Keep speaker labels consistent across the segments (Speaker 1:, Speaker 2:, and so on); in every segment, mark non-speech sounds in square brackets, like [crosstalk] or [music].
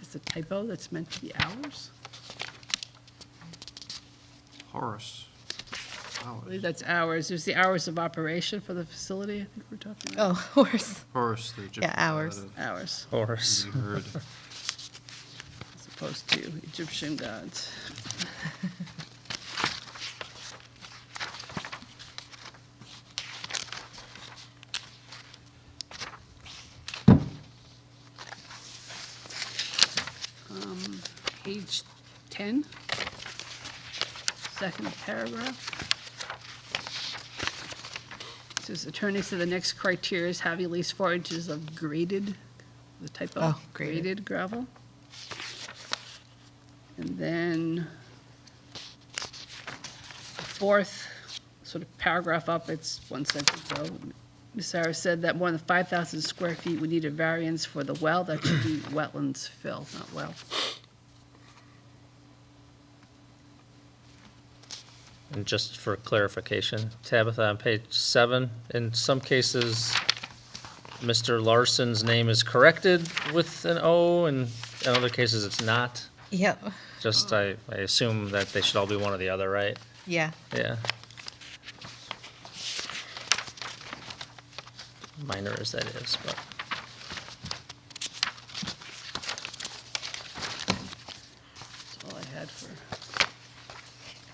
Speaker 1: it's a typo, that's meant to be hours.
Speaker 2: Horace.
Speaker 1: I believe that's hours, there's the hours of operation for the facility, I think we're talking about.
Speaker 3: Oh, [laughs] horse.
Speaker 2: Horace, the Egyptian.
Speaker 3: Yeah, hours.
Speaker 2: god of
Speaker 1: Hours,
Speaker 4: Horus.
Speaker 2: the herd.
Speaker 1: as opposed to Egyptian gods. Um, Page 10, second paragraph. It Says attorney said the next criteria is having at least four inches of graded, the type of
Speaker 3: Oh, graded.
Speaker 1: graded gravel. And then the fourth sort of paragraph up, it's one sentence though. Ms. Sarah said that more than 5,000 square feet would need a variance for the well, that should be wetlands fill, not well.
Speaker 4: And just for clarification, Tabitha, on page seven, in some cases, Mr. Larson's name is corrected with an O, and in other cases, it's not.
Speaker 3: Yep.
Speaker 4: Just, I, I assume that they should all be one or the other, right?
Speaker 3: Yeah.
Speaker 4: Yeah. Minor as that is, but
Speaker 1: That's all I had for.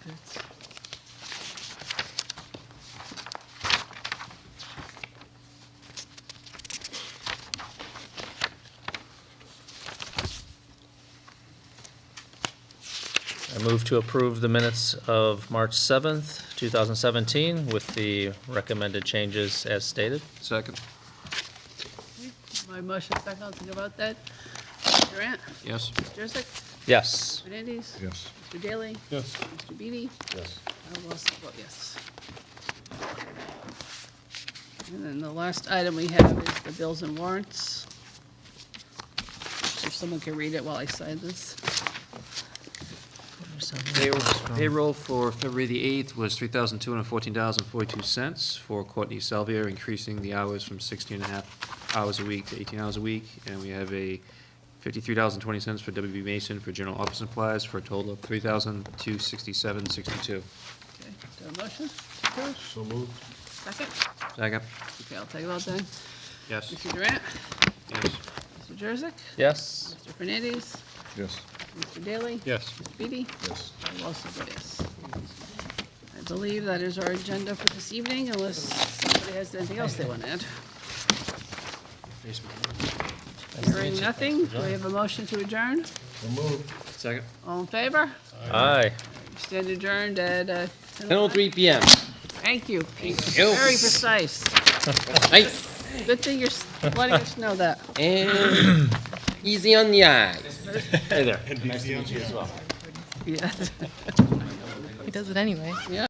Speaker 1: that's-
Speaker 4: I move to approve the minutes of March 7th, 2017, with the recommended changes as stated.
Speaker 2: Second,
Speaker 1: My motion, second, I'll think about that. Durant,
Speaker 2: yes?
Speaker 1: Jurassic,
Speaker 4: Yes.
Speaker 1: Hernandez,
Speaker 5: Yes.
Speaker 1: Mr. Daley,
Speaker 5: Yes.
Speaker 1: Mr. Beatty,
Speaker 5: Yes.
Speaker 1: I will also vote yes. And then the last item we have is the bills and warrants. If someone can read it while I sign this.
Speaker 2: Payroll- Payroll for February the 8th was $3,214.42 for Courtney Salvia, increasing the hours from 16 and a half hours a week to 18 hours a week. And we have a $53.20 for WB Mason for general office supplies for a total of
Speaker 1: Okay, do
Speaker 2: $3,267.62.
Speaker 1: I have a motion? Approved.
Speaker 5: So moved.
Speaker 1: Second?
Speaker 2: Second?
Speaker 1: Okay, I'll take a vote then.
Speaker 2: Yes.
Speaker 1: Mr. Durant,
Speaker 2: Yes.
Speaker 1: Mr. Jurassic,
Speaker 4: Yes.
Speaker 1: Mr. Fernandez,
Speaker 5: Yes.
Speaker 1: Mr. Daley.
Speaker 5: Yes.
Speaker 1: Mr. Beatty,
Speaker 5: Yes.
Speaker 1: I will also vote yes. I believe that is our agenda for this evening, unless somebody has anything else they want to add. Hearing nothing, do we have a motion to adjourn?
Speaker 5: So moved.
Speaker 2: Second?
Speaker 1: All in favor?
Speaker 4: Aye.
Speaker 1: We Stand adjourned at uh, 10:05.
Speaker 2: 10:03 PM.
Speaker 1: Thank you, Pete.
Speaker 2: you.
Speaker 1: Very precise.
Speaker 2: Nice
Speaker 1: Good thing you're s- letting us know that.
Speaker 2: and easy on the eyes.
Speaker 4: Hey there.
Speaker 1: Yes.
Speaker 3: He does it anyway.